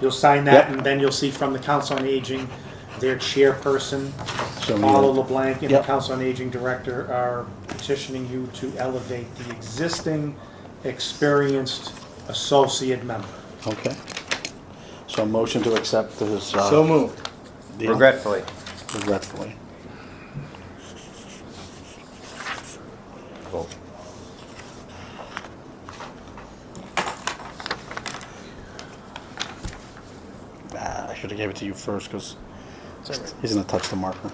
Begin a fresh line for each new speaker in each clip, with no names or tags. You'll sign that,
Yep.
and then you'll see from the Council on Aging, their chairperson,
So
Paula
you'll-
LeBlanc, and the
Yep.
Council on Aging Director are petitioning you to elevate the existing experienced associate member.
Okay. So motion to accept this, uh.
So moved.
deal?
Regretfully.
Regretfully.
Vote.
Ah, I should've gave it to you first, cause he's gonna touch the marker.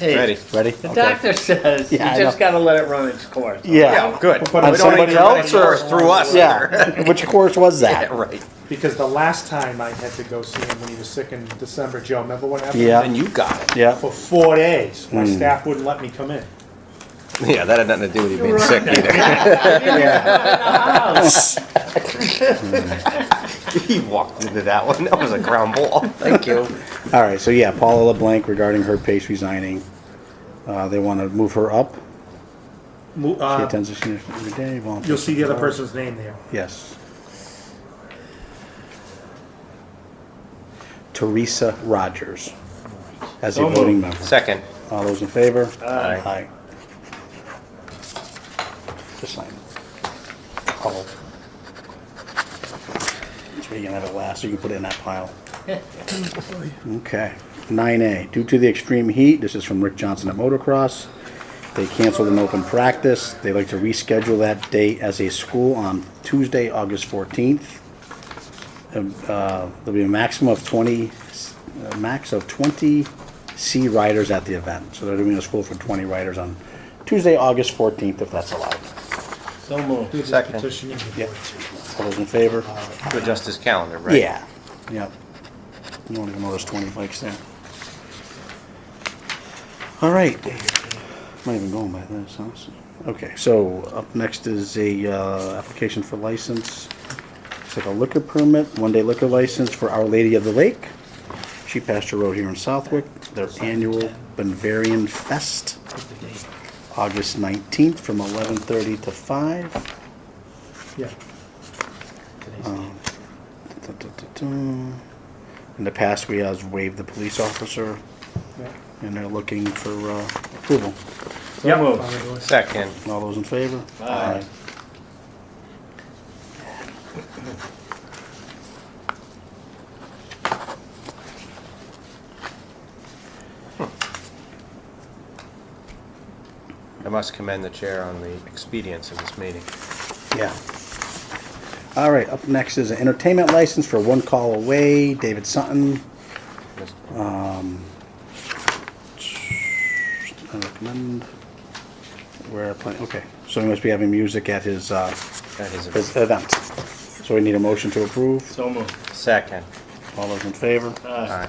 Ready.
Hey,
Ready?
the
Okay.
doctor says you
Yeah, I
just
know.
gotta let it run its course.
Yeah.
good.
We'll put it on somebody else,
or through us.
Yeah, which course was
Yeah,
that?
right.
Because the last time I had to go see him when he was sick in December, Joe, remember what happened?
Yeah. Hmm.
And you got it.
Yeah,
For four days, my staff wouldn't let me come in.
Yeah, that had nothing to do with you being sick either.
He walked into that one. That was a ground ball. Thank you.
all right, so yeah, Paula LeBlanc regarding her pace resigning. Uh, they wanna move her up.
Mo-
She
uh,
attends the senior center every day. volunteers
You'll see the other
for hours.
person's name there.
Yes. Teresa Rogers as a
So
voting
moved.
member.
Second.
All those in favor?
Aye.
Just sign. Oh. So you can have it last, so you can put it in that pile. Okay. Nine A, due to the extreme heat, this is from Rick Johnson at Motocross. They canceled an open practice. They'd like to reschedule that date as a school on Tuesday, August fourteenth. Uh, There'll be a maximum of twenty, a max of twenty C riders at the event. So they're doing a school for twenty riders on Tuesday, August fourteenth, if that's allowed.
So moved.
Who's
Second.
petitioning the
Yeah.
board to-
All those in favor?
To adjust his calendar, right?
Yeah, yep. You don't even know there's twenty bikes there. All right. Not even going by this, huh? So- Okay, so up next is a, uh, application for license. It's like a liquor permit, one-day liquor license for Our Lady of the Lake. She passed her road here in Southwick, their annual Bavarian Fest, August nineteenth from eleven-thirty to five.
Yeah.
Da-da-da-da. In the past, we has waived the police officer,
Yeah.
and they're looking for uh, approval.
So moved.
Follow those.
Second.
All those in favor?
Aye.
I must commend the chair on the expedience of this meeting.
Yeah. All right, up next is an entertainment license for One Call Away, David Sutton. I recommend, where, play- okay, so he must be having music at his, uh,
That is a
his event. So we need a motion to approve.
So moved.
second.
All those in favor?
Uh,
Aye.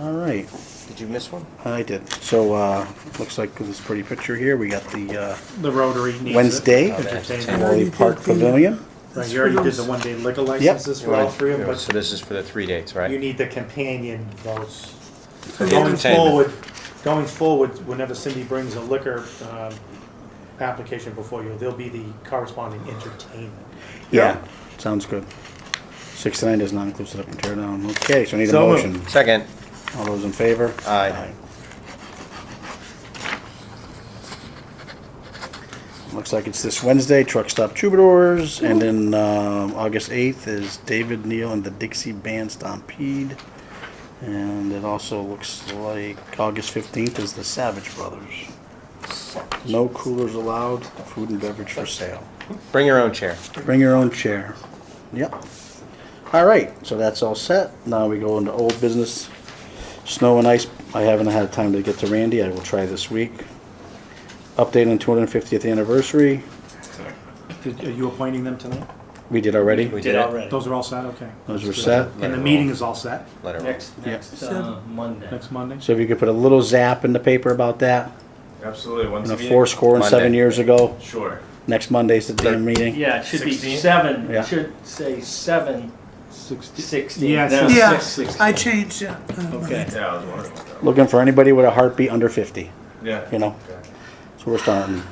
All right.
Did you miss one?
I did. So, uh, looks like with this pretty picture here, we got the, uh,
The Rotary needs it.
Wednesday,
Entertainment.
Wally Park Pavilion.
Right, You already did the one-day liquor licenses for all three of them,
So
but
this is for the three dates,
you
right?
need the companion votes.
For the
Going
entertainment.
forward, going forward, whenever Cindy brings a liquor um, application before you, there'll be the corresponding entertainment.
Yeah, sounds good. Six to nine does not include setup and tear down. Okay, so I need a
So moved.
motion.
Second.
All those in favor?
Aye.
Looks like it's this Wednesday, Truck Stop Troubadours, and then, um, August eighth is David Neal and the Dixie Band Stampede. And it also looks like August fifteenth is the Savage Brothers. No coolers allowed, food and beverage for sale.
Bring your own chair.
Bring your own chair. Yep. All right, so that's all set. Now we go into old business. Snow and ice, I haven't had time to get to Randy. I will try this week. Update on 250th anniversary.
Did- Are you appointing them tonight?
We did already.
We
Did
it.
already.
Those are all set, okay.
Those were set.
And the meeting is all set,
Let it roll.
Next, next uh, Monday.
next Monday?
So if you could put a little zap in the paper about that,
Absolutely. Once
and a
again,
four score and seven
Monday.
years ago.
Sure.
Next Monday's the damn meeting.
Yeah, it should be
16?
seven,
Yeah.
it should say seven
Sixty-
sixteen.
Yeah,
No,
six-
Yeah,
six sixteen.
I changed uh, it.
Okay.
Yeah, I was wondering.
Looking for anybody with a heartbeat under 50,
Yeah.
you know? So we're starting